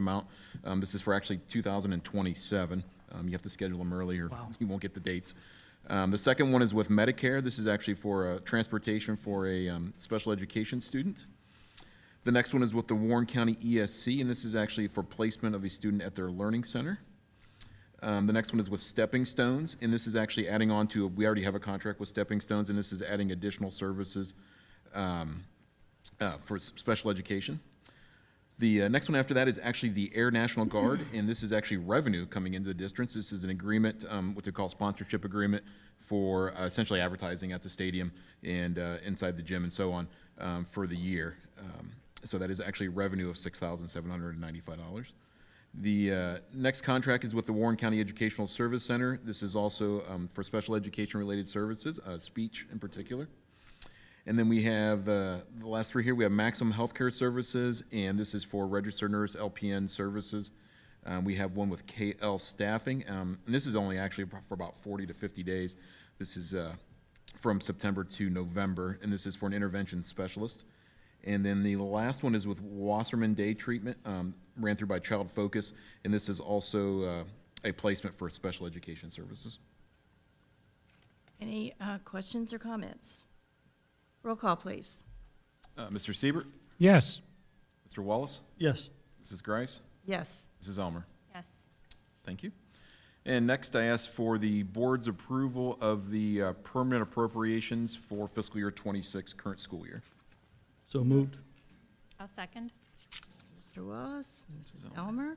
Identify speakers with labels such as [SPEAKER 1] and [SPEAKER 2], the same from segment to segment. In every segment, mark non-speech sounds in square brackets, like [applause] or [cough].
[SPEAKER 1] amount. Um, This is for actually 2027. Um, You have to schedule them earlier. [laughs] You won't get the dates. Um, The second one is with Medicare. This is actually for uh, transportation for a um, special education student. The next one is with the Warren County ESC, and this is actually for placement of a student at their learning center. Um, The next one is with Stepping Stones, and this is actually adding on to, we already have a contract with Stepping Stones, and this is adding additional services um, uh, for s- special education. The uh, next one after that is actually the Air National Guard, and this is actually revenue coming into the districts. This is an agreement, um, what they call sponsorship agreement, for uh, essentially advertising at the stadium and uh, inside the gym and so on um, for the year. Um, so that is actually revenue of six thousand seven hundred and ninety-five dollars. The uh, next contract is with the Warren County Educational Service Center. This is also um, for special education-related services, uh, speech in particular. And then we have, uh, the last three here, we have Maximum Healthcare Services, and this is for registered nurse LPN services. Um, we have one with KL Staffing, um, and this is only actually for about forty to fifty days. This is, uh, from September to November, and this is for an intervention specialist. And then the last one is with Wasserman Day Treatment, um, ran through by Child Focus, and this is also, uh, a placement for special education services.
[SPEAKER 2] Any uh, questions or comments? Roll call, please.
[SPEAKER 1] Uh, Mr. Siebert,
[SPEAKER 3] Yes.
[SPEAKER 1] Mr. Wallace,
[SPEAKER 3] Yes.
[SPEAKER 1] Mrs. Grice,
[SPEAKER 2] Yes.
[SPEAKER 1] Mrs. Elmer.
[SPEAKER 4] Yes.
[SPEAKER 1] Thank you. And next, I ask for the board's approval of the uh, permanent appropriations for fiscal year 26, current school year.
[SPEAKER 3] So moved.
[SPEAKER 4] I'll second.
[SPEAKER 2] Mr. Wallace, Mrs. Elmer,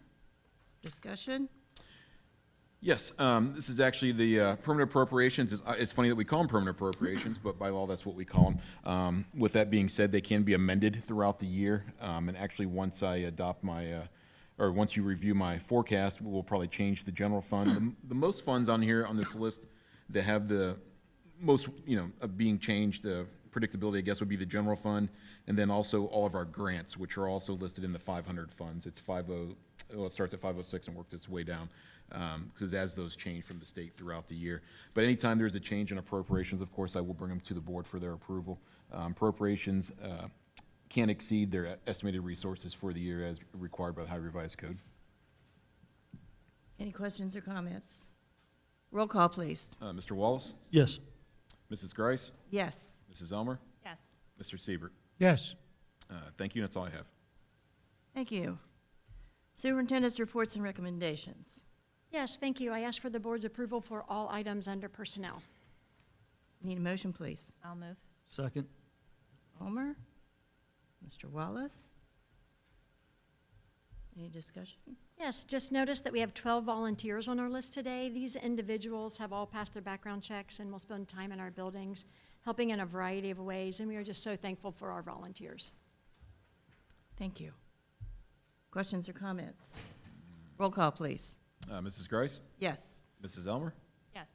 [SPEAKER 2] discussion?
[SPEAKER 1] Yes, um, this is actually the uh, permanent appropriations. It's- uh, It's funny that we call them permanent appropriations, but by law, that's what we call them. With that being said, they can be amended throughout the year. Um, And actually, once I adopt my, uh, or once you review my forecast, we'll probably change the general fund. The- The most funds on here, on this list, that have the most, you know, of being changed, the predictability, I guess, would be the general fund, and then also all of our grants, which are also listed in the five hundred funds. It's five oh, well, it starts at five oh six and works its way down, because as those change from the state throughout the year. But anytime there's a change in appropriations, of course, I will bring them to the board for their approval. Um, Appropriations uh, can't exceed their estimated resources for the year as required by the High Revised Code.
[SPEAKER 2] Any questions or comments? Roll call, please.
[SPEAKER 1] Uh, Mr. Wallace,
[SPEAKER 3] Yes.
[SPEAKER 1] Mrs. Grice,
[SPEAKER 2] Yes.
[SPEAKER 1] Mrs. Elmer,
[SPEAKER 4] Yes.
[SPEAKER 1] Mr. Siebert.
[SPEAKER 3] Yes.
[SPEAKER 1] Uh, Thank you, and that's all I have.
[SPEAKER 2] Thank you. Superintendent's reports and recommendations.
[SPEAKER 5] Yes, thank you. I ask for the board's approval for all items under personnel.
[SPEAKER 2] Need a motion, please.
[SPEAKER 4] I'll move.
[SPEAKER 3] Second.
[SPEAKER 2] Elmer, Mr. Wallace? Any discussion?
[SPEAKER 5] Yes, just noticed that we have 12 volunteers on our list today. These individuals have all passed their background checks and will spend time in our buildings, helping in a variety of ways, and we are just so thankful for our volunteers.
[SPEAKER 2] Thank you. Questions or comments? Roll call, please.
[SPEAKER 1] Uh, Mrs. Grice,
[SPEAKER 2] Yes.
[SPEAKER 1] Mrs. Elmer,
[SPEAKER 4] Yes.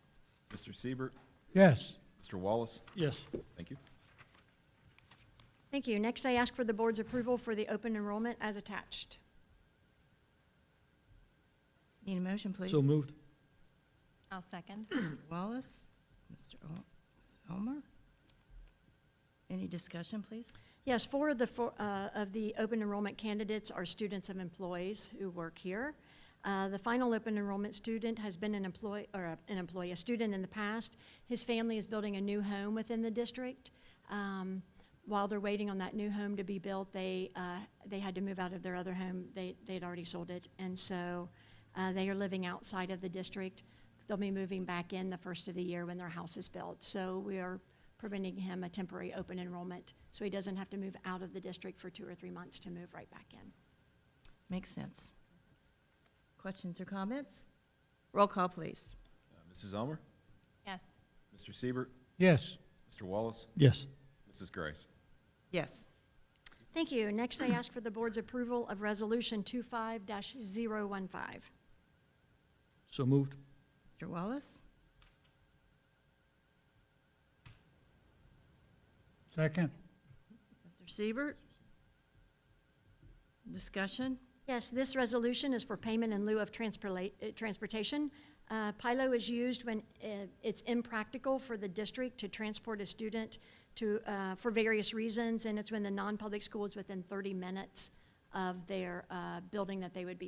[SPEAKER 1] Mr. Siebert,
[SPEAKER 3] Yes.
[SPEAKER 1] Mr. Wallace,
[SPEAKER 3] Yes.
[SPEAKER 1] thank you.
[SPEAKER 5] Thank you. Next, I ask for the board's approval for the open enrollment as attached.
[SPEAKER 2] Need a motion, please.
[SPEAKER 3] So moved.
[SPEAKER 4] I'll second.
[SPEAKER 2] Wallace, Mr. El- Ms. Elmer. Any discussion, please?
[SPEAKER 5] Yes, four of the, four, uh, of the open enrollment candidates are students of employees who work here. Uh, the final open enrollment student has been an employee, or a- an employee, a student in the past. His family is building a new home within the district. Um, while they're waiting on that new home to be built, they, uh, they had to move out of their other home. They, they'd already sold it. And so, uh, they are living outside of the district. They'll be moving back in the first of the year when their house is built. So we are permitting him a temporary open enrollment, so he doesn't have to move out of the district for two or three months to move right back in.
[SPEAKER 2] Makes sense. Questions or comments? Roll call, please.
[SPEAKER 1] Uh, Mrs. Elmer,
[SPEAKER 4] Yes.
[SPEAKER 1] Mr. Siebert,
[SPEAKER 3] Yes.
[SPEAKER 1] Mr. Wallace,
[SPEAKER 3] Yes.
[SPEAKER 1] Mrs. Grice.
[SPEAKER 2] Yes.
[SPEAKER 5] Thank you. Next, I ask for the board's approval of Resolution 25-015.
[SPEAKER 3] So moved.
[SPEAKER 2] Mr. Wallace,
[SPEAKER 3] Second.
[SPEAKER 2] Mr. Siebert. Discussion?
[SPEAKER 5] Yes, this resolution is for payment in lieu of transporla- uh, transportation. Uh, PILO is used when uh, it's impractical for the district to transport a student to, uh, for various reasons, and it's when the non-public school is within 30 minutes of their uh, building that they would be